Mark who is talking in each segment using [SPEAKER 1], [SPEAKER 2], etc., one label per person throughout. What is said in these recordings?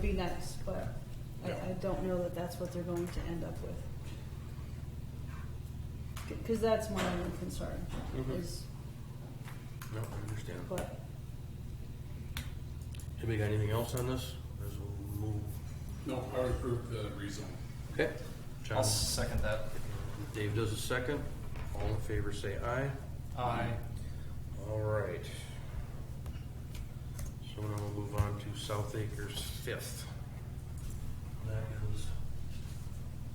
[SPEAKER 1] be nice, but I,
[SPEAKER 2] Yeah.
[SPEAKER 1] I don't know that that's what they're going to end up with. Because that's my only concern
[SPEAKER 2] Mhm.
[SPEAKER 1] is,
[SPEAKER 2] No, I understand.
[SPEAKER 1] but
[SPEAKER 2] Anybody got anything else on this? As we move-
[SPEAKER 3] No, I would approve the rezone.
[SPEAKER 2] Okay.
[SPEAKER 4] I'll
[SPEAKER 2] John,
[SPEAKER 4] second that.
[SPEAKER 2] Dave does a second. All in favor, say aye.
[SPEAKER 4] Aye.
[SPEAKER 2] All right. So now we'll move on to South Acres Fifth. That is,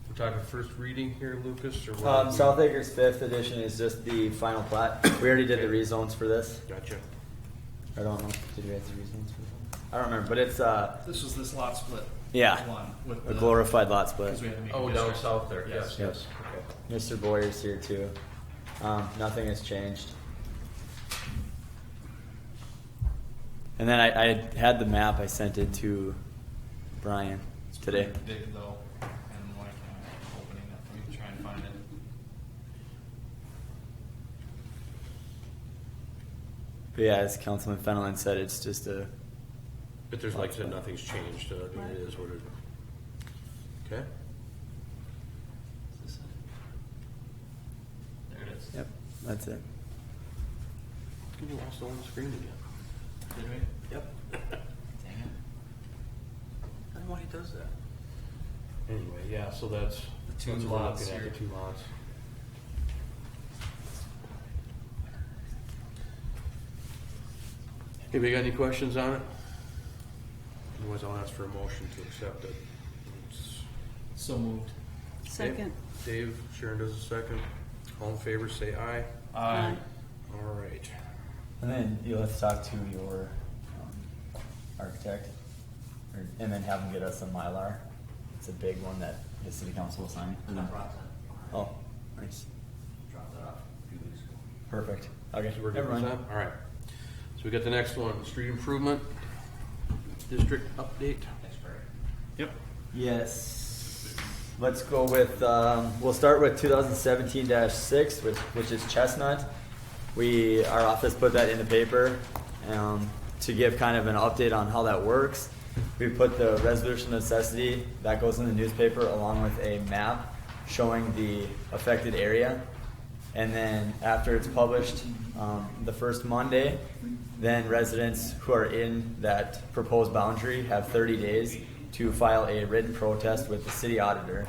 [SPEAKER 2] we're talking first reading here, Lucas, or what?
[SPEAKER 5] Um, South Acres Fifth Edition is just the final plat. We already did the rezones for this.
[SPEAKER 2] Gotcha.
[SPEAKER 5] I don't know. Did we have the rezones for this? I don't remember, but it's uh,
[SPEAKER 4] This was this lot split.
[SPEAKER 5] Yeah.
[SPEAKER 4] One with
[SPEAKER 5] a
[SPEAKER 4] the.
[SPEAKER 5] glorified lot split.
[SPEAKER 4] Because we had to make. a
[SPEAKER 2] Oh, down
[SPEAKER 4] district.
[SPEAKER 2] south there, yes, yes.
[SPEAKER 5] Yes. Mr. Boyer's here too. Um, nothing has changed. And then I, I had the map. I sent it to Brian
[SPEAKER 4] It's
[SPEAKER 5] today.
[SPEAKER 4] pretty Big though, and like I'm opening up, let me try and find it.
[SPEAKER 5] But yeah, as Councilman Fenelon said, it's just a
[SPEAKER 2] But there's, like I said, nothing's changed, uh, it is what it. Okay,
[SPEAKER 4] Is this it? There it is.
[SPEAKER 5] yep. That's it.
[SPEAKER 2] you lost the one screen again.
[SPEAKER 4] Did we?
[SPEAKER 2] Yep.
[SPEAKER 4] Dang it.
[SPEAKER 2] I don't know why he does that. Anyway, yeah, so that's.
[SPEAKER 4] The two
[SPEAKER 2] that's what we're
[SPEAKER 4] lots
[SPEAKER 2] looking at,
[SPEAKER 4] here.
[SPEAKER 2] The two lots. Anybody got any questions on it? Otherwise, I'll ask for a motion to accept it. It's-
[SPEAKER 4] So moved.
[SPEAKER 1] second.
[SPEAKER 2] Dave, Sharon does a second. All in favor, say aye.
[SPEAKER 1] Aye.
[SPEAKER 2] All right.
[SPEAKER 5] And then you'll have to talk to your um, architect, or, and then have him get us a mylar. It's a big one that the city council will sign. Oh, nice,
[SPEAKER 4] Drop that off a few weeks ago.
[SPEAKER 5] perfect. Okay,
[SPEAKER 2] So we're good
[SPEAKER 5] never
[SPEAKER 2] with
[SPEAKER 5] mind.
[SPEAKER 2] that? All right. So we got the next one, street improvement, district update.
[SPEAKER 4] Thanks, Barry.
[SPEAKER 2] Yep.
[SPEAKER 5] Yes. Let's go with, um, we'll start with two thousand seventeen six, which, which is Chestnut. We, our office put that in the paper, um, to give kind of an update on how that works. We put the resolution of necessity, that goes in the newspaper along with a map showing the affected area. And then after it's published, um, the first Monday, then residents who are in that proposed boundary have thirty days to file a written protest with the city auditor.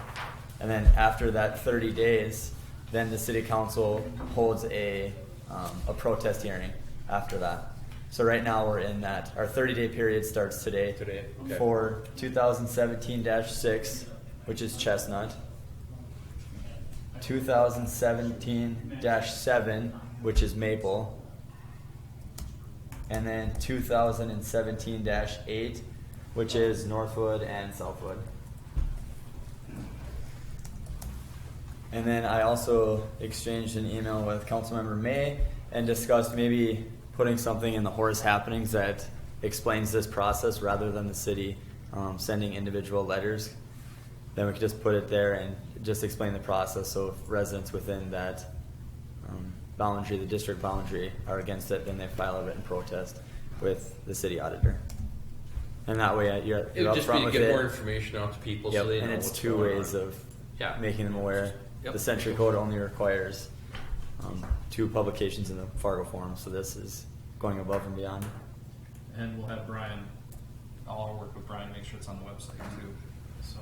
[SPEAKER 5] And then after that thirty days, then the city council holds a, um, a protest hearing after that. So right now, we're in that, our thirty-day period starts today.
[SPEAKER 2] Today, okay.
[SPEAKER 5] For two thousand seventeen six, which is Chestnut. 2017-7, which is Maple. And then 2017-8, which is Northwood and Southwood. And then I also exchanged an email with Councilmember May and discussed maybe putting something in the Horace Happenings that explains this process rather than the city um, sending individual letters. Then we could just put it there and just explain the process. So if residents within that um, boundary, the district boundary, are against it, then they file a written protest with the city auditor. And that way, uh, you're,
[SPEAKER 2] It
[SPEAKER 5] you're
[SPEAKER 2] would
[SPEAKER 5] up
[SPEAKER 2] just be
[SPEAKER 5] front
[SPEAKER 2] to
[SPEAKER 5] with
[SPEAKER 2] get
[SPEAKER 5] it.
[SPEAKER 2] more information out to people
[SPEAKER 5] Yep,
[SPEAKER 2] so they know
[SPEAKER 5] and it's
[SPEAKER 2] what's
[SPEAKER 5] two
[SPEAKER 2] going
[SPEAKER 5] ways
[SPEAKER 2] on.
[SPEAKER 5] of
[SPEAKER 2] Yeah.
[SPEAKER 5] making them aware.
[SPEAKER 2] Yep.
[SPEAKER 5] The Century Code only requires um, two publications in the Fargo Forum, so this is going above and beyond.
[SPEAKER 4] And we'll have Brian, I'll work with Brian, make sure it's on the website too, so.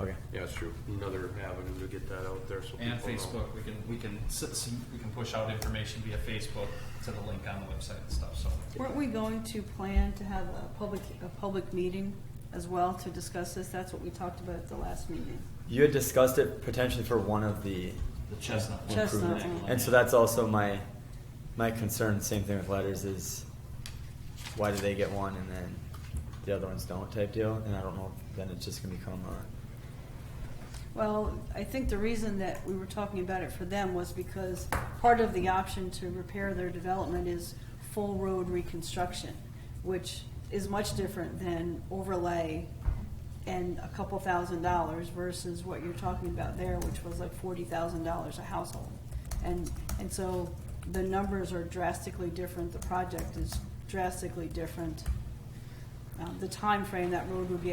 [SPEAKER 5] Okay.
[SPEAKER 2] Yeah, that's true. Another avenue to get that out there so
[SPEAKER 4] And
[SPEAKER 2] people know.
[SPEAKER 4] Facebook, we can, we can, s- s- we can push out information via Facebook to the link on the website and stuff, so.
[SPEAKER 1] Weren't we going to plan to have a public, a public meeting as well to discuss this? That's what we talked about at the last meeting.
[SPEAKER 5] You had discussed it potentially for one of the
[SPEAKER 4] The chestnut.
[SPEAKER 1] one. Chestnut one.
[SPEAKER 5] And so that's also my my concern. Same thing with letters is why do they get one and then the other ones don't type deal? And I don't know. Then it's just gonna become a
[SPEAKER 1] Well, I think the reason that we were talking about it for them was because part of the option to repair their development is full road reconstruction, which is much different than overlay and a couple thousand dollars versus what you're talking about there, which was like forty thousand dollars a household. And, and so the numbers are drastically different, the project is drastically different. Um, the frame that road would be